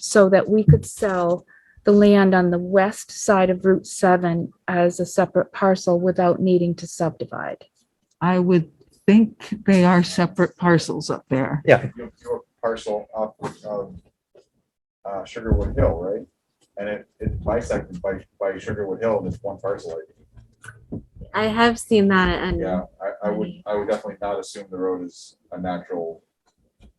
so that we could sell the land on the west side of Route 7 as a separate parcel without needing to subdivide. I would think they are separate parcels up there. your, your parcel up of, uh, Sugarwood Hill, right? And it, it bisected by, by Sugarwood Hill, and it's one parcel. I think. I have seen that and Yeah, I, I would, I would definitely not assume the road is a natural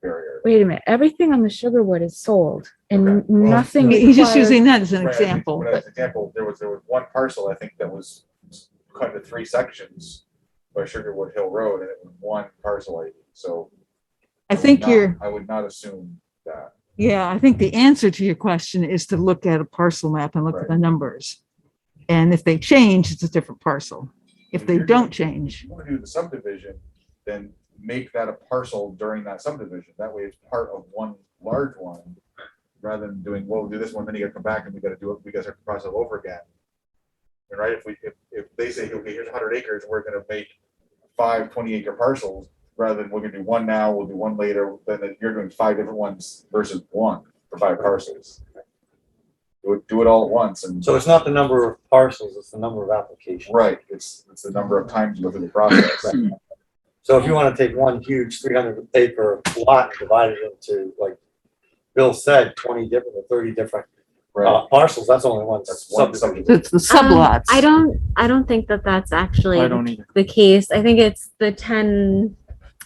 barrier. Wait a minute, everything on the Sugarwood is sold and Okay, well, nothing. He's just requires- using that as an Right, I think example, when I but was Example, there was, there was one parcel, I think, that was cut into three sections by Sugarwood Hill Road, and it was one parcel, I think. so. I would think not- you're, I would not assume that. yeah, I think the answer to your question is to look at a parcel map and look at Right. the numbers. And if they change, it's a different parcel. If they don't change, you want to do the subdivision, then make that a parcel during that subdivision. That way it's part of one large one. Rather than doing, well, we'll do this one, then you gotta come back and we gotta do it, we guys have to cross it over again. And right, if we, if, if they say, okay, here's hundred acres, we're gonna make five 20 acre parcels. Rather than we're gonna do one now, we'll do one later, then you're doing five different ones versus one for five parcels. Do it, do it all at once and, So it's not the number of parcels, it's the number of applications. right, it's, it's the number of times you go through the process. So if you want to take one huge three hundred acre lot and divide it into, like Bill said, twenty different or thirty different Right. uh, parcels, that's only one That's one subdivision. it's the sublots. I don't I don't think that that's actually the case. I think it's the 10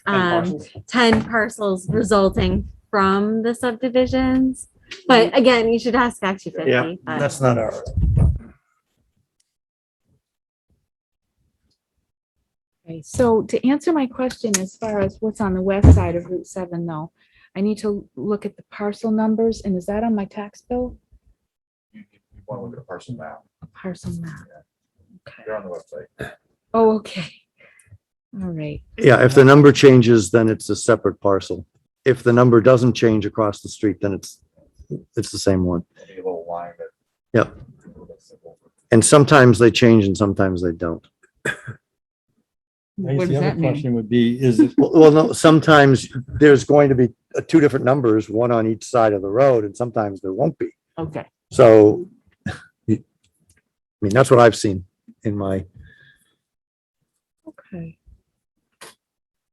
um 10 parcels resulting from the subdivisions. But again, you should ask Act 250. but- That's not our. Okay, So to answer my question as far as what's on the west side of Route 7 though, I need to look at the parcel numbers and is that on my tax bill? you, you want to look at a parcel map, A parcel map. Okay. they're on the website. Oh, okay. All right. Yeah, if the number changes, then it's a separate parcel. If the number doesn't change across the street, then it's, it's the same one. It'll be a little line that. Yep. That's simple. And sometimes they change and sometimes they don't. What guess does the other that mean? question would be, is it, Well, well, no, sometimes there's going to be uh, two different numbers, one on each side of the road, and sometimes there won't be. Okay, So you- I mean, that's what I've seen in my, Okay.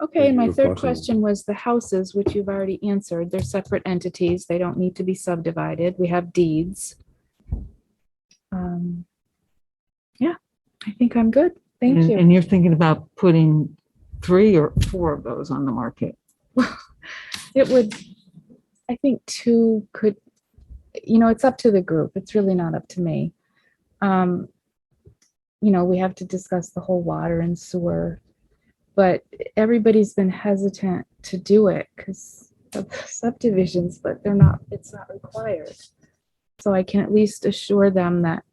Okay, and my Review of third parcel. question was the houses, which you've already answered. They're separate entities. They don't need to be subdivided. We have deeds. Um, Yeah, I think I'm good. Thank and, you. and you're thinking about putting three or four of those on the market. It would, I think two could, you know, it's up to the group. It's really not up to me. Um, you know, we have to discuss the whole water and sewer, but everybody's been hesitant to do it because of the subdivisions, but they're not, it's not required. So I can at least assure them that,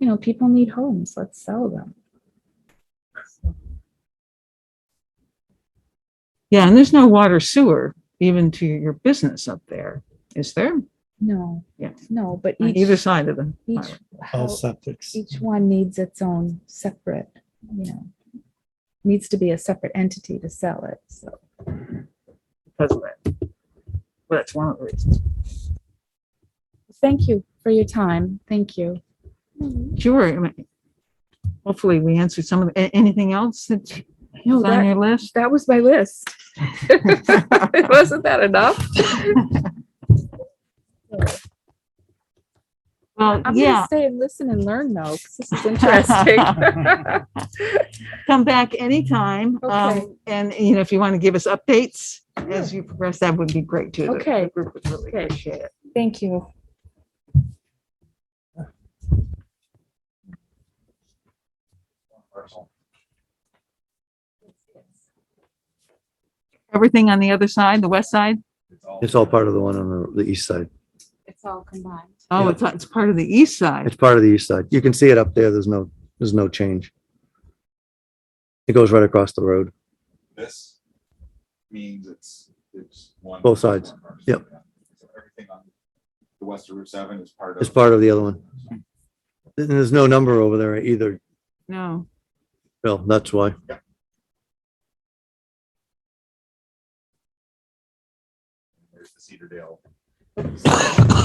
you know, people need homes. Let's sell them. Yeah, and there's no water sewer even to your business up there, is there? No. Yeah. No, but On either each, side of them. each. all house- septics? each one needs its own separate, you know, needs to be a separate entity to sell it, so. because of that. But that's one of the reasons. Thank you for your time, thank you. Sure. I mean, Hopefully we answered some of, the- a- anything else that's No, on that, your list? that was my list. Wasn't that enough? Well, I'm gonna yeah, stay and listen and learn though, 'cause this is interesting. come back anytime. Okay. Um, and you know, if you want to give us updates as you progress, that would be great too. The- the Okay. Group would really Okay. appreciate it. Thank you. Parcel. Everything on the other side, the west side? it's all part of the one on the, the east side. It's all combined. Oh, Yeah. it's, it's part of the east side. It's part of the east side. You can see it up there. There's no, there's no change. It goes right across the road. This means it's, it's one. Both sides. one parcel. Yep. So Everything on the west of Route seven is part of. It's part of the other one. And there's no number over there either, No. Bill. That's why. There's the Cedar Dale.